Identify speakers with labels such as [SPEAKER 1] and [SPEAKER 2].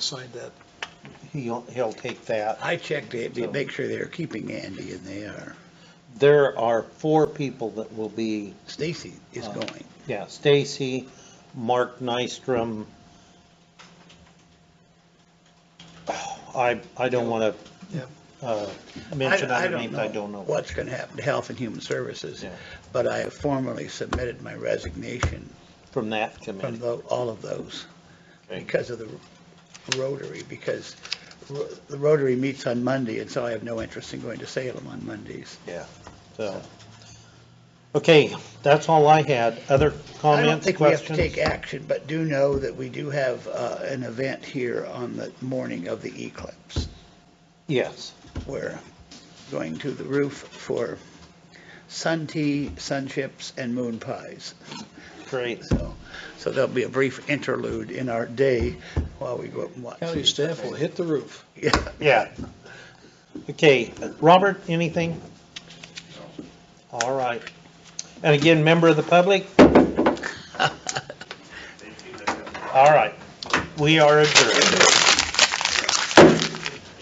[SPEAKER 1] signed that.
[SPEAKER 2] He'll, he'll take that.
[SPEAKER 3] I checked it to make sure they're keeping Andy, and they are.
[SPEAKER 2] There are four people that will be,
[SPEAKER 3] Stacy is
[SPEAKER 2] Uh,
[SPEAKER 3] going.
[SPEAKER 2] yeah, Stacy, Mark Nystrom. Oh, I, I don't want
[SPEAKER 1] Yep.
[SPEAKER 2] to, uh, mention
[SPEAKER 3] I- I
[SPEAKER 2] other names, I don't know.
[SPEAKER 3] What's going to happen to Health and Human Services,
[SPEAKER 2] Yeah.
[SPEAKER 3] but I have formally submitted my resignation
[SPEAKER 2] From that
[SPEAKER 3] from
[SPEAKER 2] committee.
[SPEAKER 3] tho- all of those
[SPEAKER 2] Okay.
[SPEAKER 3] because of the Rotary, because ro- the Rotary meets on Monday, and so I have no interest in going to Salem on Mondays.
[SPEAKER 2] Yeah, so. Okay, that's all I had. Other
[SPEAKER 3] I don't
[SPEAKER 2] comments,
[SPEAKER 3] think we have to
[SPEAKER 2] questions?
[SPEAKER 3] take action, but do know that we do have uh, an event here on the morning of the eclipse.
[SPEAKER 2] Yes,
[SPEAKER 3] We're going to the roof for sun tea, sun chips, and moon pies.
[SPEAKER 2] great.
[SPEAKER 3] So, so there'll be a brief interlude in our day while we go up and watch.
[SPEAKER 1] County staff will hit the roof.
[SPEAKER 3] Yeah.
[SPEAKER 2] Yeah. Okay, Robert, anything? All right. And again, member of the public? All right, we are adjourned.